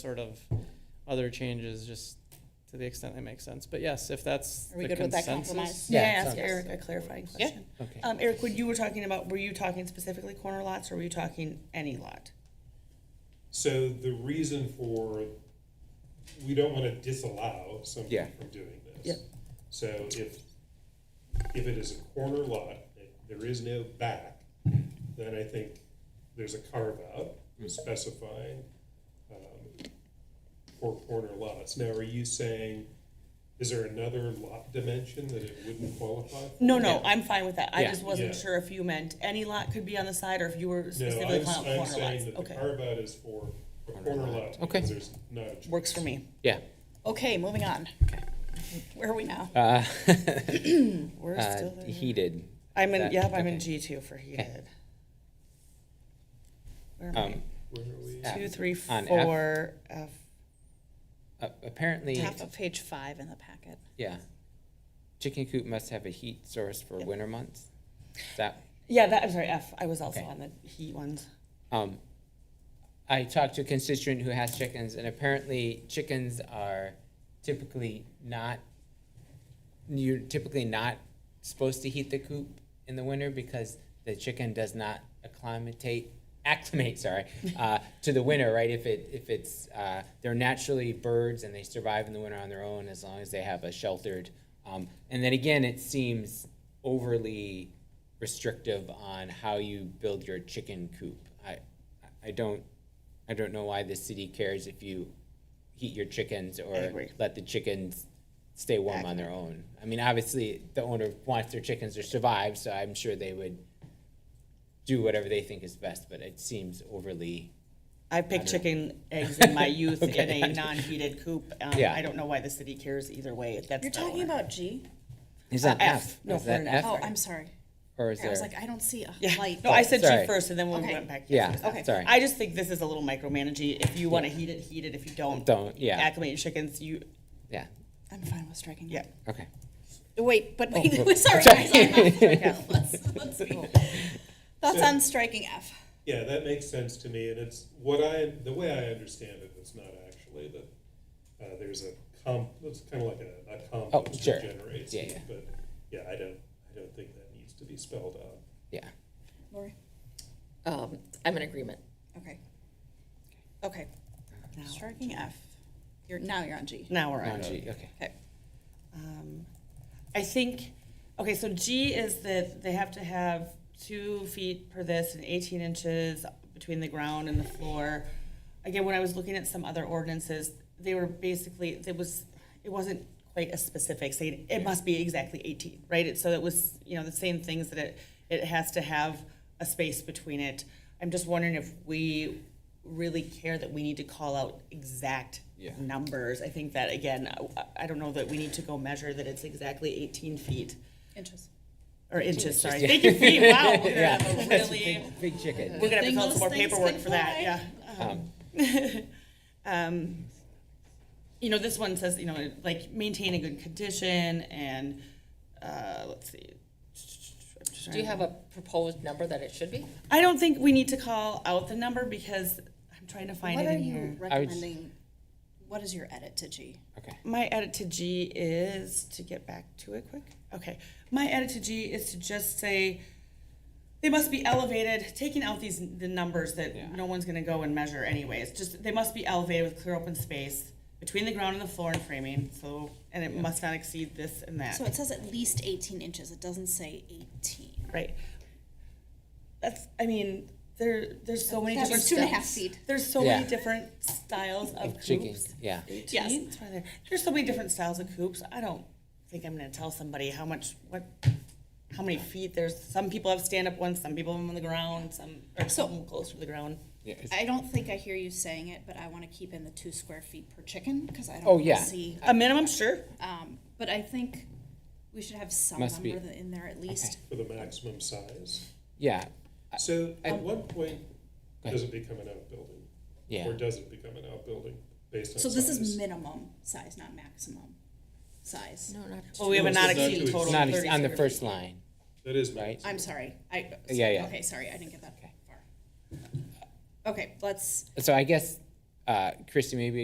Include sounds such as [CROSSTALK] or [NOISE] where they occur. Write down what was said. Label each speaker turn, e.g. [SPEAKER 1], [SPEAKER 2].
[SPEAKER 1] sort of other changes, just to the extent they make sense. But yes, if that's
[SPEAKER 2] Are we
[SPEAKER 1] the
[SPEAKER 2] good with that
[SPEAKER 1] consensus.
[SPEAKER 2] compromise?
[SPEAKER 3] May I
[SPEAKER 2] Yeah,
[SPEAKER 3] ask
[SPEAKER 2] sounds-
[SPEAKER 3] Eric a clarifying
[SPEAKER 2] Yeah.
[SPEAKER 3] question?
[SPEAKER 4] Okay.
[SPEAKER 3] Um, Eric, when you were talking about, were you talking specifically corner lots or were you talking any lot?
[SPEAKER 5] So the reason for, we don't wanna disallow somebody
[SPEAKER 4] Yeah.
[SPEAKER 5] from doing this.
[SPEAKER 3] Yep.
[SPEAKER 5] So if, if it is a corner lot, if there is no back, then I think there's a carve out
[SPEAKER 4] Hmm.
[SPEAKER 5] specifying, um, for corner lots. Now, are you saying, is there another lot dimension that it wouldn't qualify? for?
[SPEAKER 3] No, no, I'm fine with that. I
[SPEAKER 4] Yeah.
[SPEAKER 3] just wasn't
[SPEAKER 5] Yeah.
[SPEAKER 3] sure if you meant any lot could be on the side or if you were
[SPEAKER 5] No,
[SPEAKER 3] specifically
[SPEAKER 5] I'm,
[SPEAKER 3] talking
[SPEAKER 5] I'm
[SPEAKER 3] about corner
[SPEAKER 5] saying
[SPEAKER 3] lots.
[SPEAKER 5] that the
[SPEAKER 3] Okay,
[SPEAKER 5] carve out is for a corner lot,
[SPEAKER 4] Okay.
[SPEAKER 5] because there's not a. choice.
[SPEAKER 3] works for me.
[SPEAKER 4] Yeah.
[SPEAKER 2] Okay, moving on. Where are we now?
[SPEAKER 4] Uh, [LAUGHS]
[SPEAKER 3] We're
[SPEAKER 4] uh,
[SPEAKER 3] still there.
[SPEAKER 4] heated.
[SPEAKER 3] I'm in,
[SPEAKER 4] that-
[SPEAKER 3] yep, I'm in
[SPEAKER 4] okay.
[SPEAKER 3] G two for heated. Where am
[SPEAKER 4] Um,
[SPEAKER 5] Where are we?
[SPEAKER 3] I? Two, three,
[SPEAKER 4] on F.
[SPEAKER 3] four, F.
[SPEAKER 4] a- apparently,
[SPEAKER 2] Top of page five in the packet.
[SPEAKER 4] yeah. Chicken coop must have a heat source for winter months. Is That,
[SPEAKER 3] Yeah, that, I'm sorry, F. I was also
[SPEAKER 4] Okay.
[SPEAKER 3] on the heat ones.
[SPEAKER 4] um, I talked to a constituent who has chickens, and apparently chickens are typically not, you're typically not supposed to heat the coop in the winter because the chicken does not acclimatate, acclimate, sorry, uh, to the winter, right? If it, if it's, uh, they're naturally birds and they survive in the winter on their own as long as they have a sheltered. Um, and then again, it seems overly restrictive on how you build your chicken coop. I, I don't, I don't know why the city cares if you heat your chickens or
[SPEAKER 3] agree.
[SPEAKER 4] let the chickens stay warm on their own. I mean, obviously, the owner wants their chickens to survive, so I'm sure they would do whatever they think is best, but it seems overly,
[SPEAKER 3] I picked chicken eggs in
[SPEAKER 4] [LAUGHS]
[SPEAKER 3] my youth
[SPEAKER 4] Okay.
[SPEAKER 3] in a non-heated coop. Um,
[SPEAKER 4] Yeah.
[SPEAKER 3] I don't know why the city cares either way. That's
[SPEAKER 2] You're
[SPEAKER 3] the
[SPEAKER 2] talking
[SPEAKER 3] owner.
[SPEAKER 2] about G?
[SPEAKER 4] is that
[SPEAKER 3] F.
[SPEAKER 4] F?
[SPEAKER 3] No,
[SPEAKER 4] Is that
[SPEAKER 3] for an F.
[SPEAKER 2] Oh,
[SPEAKER 4] F?
[SPEAKER 2] I'm sorry.
[SPEAKER 4] Or is
[SPEAKER 2] I
[SPEAKER 4] there?
[SPEAKER 2] was like, I don't see a
[SPEAKER 3] Yeah,
[SPEAKER 2] light.
[SPEAKER 3] no, I said
[SPEAKER 4] Sorry.
[SPEAKER 3] G first, and then when we
[SPEAKER 2] Okay.
[SPEAKER 3] went back.
[SPEAKER 4] Yeah,
[SPEAKER 3] yes, it was F.
[SPEAKER 4] sorry.
[SPEAKER 3] I just think this is a little micromanaging. If you want to heat it, heat it. If you don't,
[SPEAKER 4] Don't, yeah.
[SPEAKER 3] Acclimate your chickens, you,
[SPEAKER 4] Yeah,
[SPEAKER 2] I'm fine with striking.
[SPEAKER 3] yeah.
[SPEAKER 4] okay.
[SPEAKER 2] Wait, but wait,
[SPEAKER 4] Oh,
[SPEAKER 2] [LAUGHS] sorry. guys, I'm-
[SPEAKER 3] [LAUGHS]
[SPEAKER 2] Let's, let's be. Thoughts on striking F?
[SPEAKER 5] Yeah, that makes sense to me, and it's what I, the way I understand it, it's not actually that, uh, there's a comp, it's kind of like a, a
[SPEAKER 4] Oh,
[SPEAKER 5] compost
[SPEAKER 4] sure.
[SPEAKER 5] that generates.
[SPEAKER 4] Yeah,
[SPEAKER 5] heat,
[SPEAKER 4] yeah.
[SPEAKER 5] But, yeah, I don't, I don't think that needs to be spelled out.
[SPEAKER 4] Yeah,
[SPEAKER 2] Lori?
[SPEAKER 6] Um, I'm in agreement.
[SPEAKER 2] Okay. Okay,
[SPEAKER 3] Now-
[SPEAKER 2] striking F. You're, now you're on G.
[SPEAKER 3] Now we're
[SPEAKER 4] on
[SPEAKER 3] on.
[SPEAKER 4] G, okay.
[SPEAKER 2] Okay.
[SPEAKER 3] Um, I think, okay, so G is that they have to have two feet per this and eighteen inches between the ground and the floor. Again, when I was looking at some other ordinances, they were basically, it was, it wasn't quite a specific saying, it must be exactly eighteen, right? It, so it was, you know, the same things that it, it has to have a space between it. I'm just wondering if we really care that we need to call out exact
[SPEAKER 4] Yeah.
[SPEAKER 3] numbers. I think that, again, uh, I- I don't know that we need to go measure that it's exactly 18 feet,
[SPEAKER 2] Inches.
[SPEAKER 3] or inches, sorry. Thank you, feet, wow. We're gonna have a really,
[SPEAKER 4] Big- Big chicken.
[SPEAKER 3] we're gonna have to
[SPEAKER 2] Thing
[SPEAKER 3] fill out some
[SPEAKER 2] those
[SPEAKER 3] more
[SPEAKER 2] things
[SPEAKER 3] paperwork
[SPEAKER 2] can
[SPEAKER 3] for that,
[SPEAKER 2] fly.
[SPEAKER 3] yeah.
[SPEAKER 4] Um,
[SPEAKER 3] Um, [LAUGHS] You know, this one says, you know, like, maintain a good condition, and, uh, let's see. I'm just
[SPEAKER 6] Do you
[SPEAKER 3] trying to-
[SPEAKER 6] have a proposed number that it should be?
[SPEAKER 3] I don't think we need to call out the number, because I'm trying to find
[SPEAKER 2] What
[SPEAKER 3] it
[SPEAKER 2] are
[SPEAKER 3] in
[SPEAKER 2] you
[SPEAKER 3] here.
[SPEAKER 4] would-
[SPEAKER 2] recommending? What is your edit to G?
[SPEAKER 4] Okay,
[SPEAKER 3] My edit to G is to get back to it quick. Okay. My edit to G is to just say they must be elevated, taking out these the numbers that
[SPEAKER 4] Yeah.
[SPEAKER 3] no one's gonna go and measure anyways. Just they must be elevated with clear open space between the ground and the floor and framing. So and it must not exceed this and that.
[SPEAKER 2] So it says at least eighteen inches, it doesn't say eighteen.
[SPEAKER 3] right. That's I mean, there there's so many
[SPEAKER 2] That's
[SPEAKER 3] different
[SPEAKER 2] two and a half
[SPEAKER 3] styles.
[SPEAKER 2] feet.
[SPEAKER 3] There's so
[SPEAKER 4] Yeah.
[SPEAKER 3] many different styles of
[SPEAKER 4] chicken,
[SPEAKER 3] coops.
[SPEAKER 4] yeah.
[SPEAKER 2] Yes.
[SPEAKER 3] Yes. There's so many different styles of coops. I don't think I'm gonna tell somebody how much, what, how many feet. There's, some people have stand-up ones, some people have them on the ground, some, or some close to the ground.
[SPEAKER 4] Yeah, it's-
[SPEAKER 2] I don't think I hear you saying it, but I want to keep in the two square feet per chicken, because I don't
[SPEAKER 4] Oh,
[SPEAKER 2] wanna
[SPEAKER 4] yeah.
[SPEAKER 2] see.
[SPEAKER 3] A minimum, sure.
[SPEAKER 2] Um, but I think we should have some
[SPEAKER 4] Must be-
[SPEAKER 2] number tha- in there at least.
[SPEAKER 5] For the maximum size.
[SPEAKER 4] Yeah,
[SPEAKER 5] So at what point
[SPEAKER 4] Go ahead.
[SPEAKER 5] does it become an outbuilding?
[SPEAKER 4] yeah.
[SPEAKER 5] Or does it become an outbuilding based on
[SPEAKER 2] So this is
[SPEAKER 5] size?
[SPEAKER 2] minimum size, not maximum size.
[SPEAKER 6] No, not.
[SPEAKER 3] Well, we have a
[SPEAKER 5] No,
[SPEAKER 3] not
[SPEAKER 5] it's not
[SPEAKER 3] exceed
[SPEAKER 5] to
[SPEAKER 3] total
[SPEAKER 4] Not
[SPEAKER 3] of
[SPEAKER 4] ex-
[SPEAKER 3] thirty.
[SPEAKER 4] on the
[SPEAKER 3] square
[SPEAKER 4] first
[SPEAKER 3] feet.
[SPEAKER 4] line.
[SPEAKER 5] That is
[SPEAKER 4] Right.
[SPEAKER 5] maximum.
[SPEAKER 2] I'm sorry, I.
[SPEAKER 4] Yeah, yeah.
[SPEAKER 2] Okay, sorry, I didn't get that far. Okay, let's,
[SPEAKER 4] So I guess uh, Christy, maybe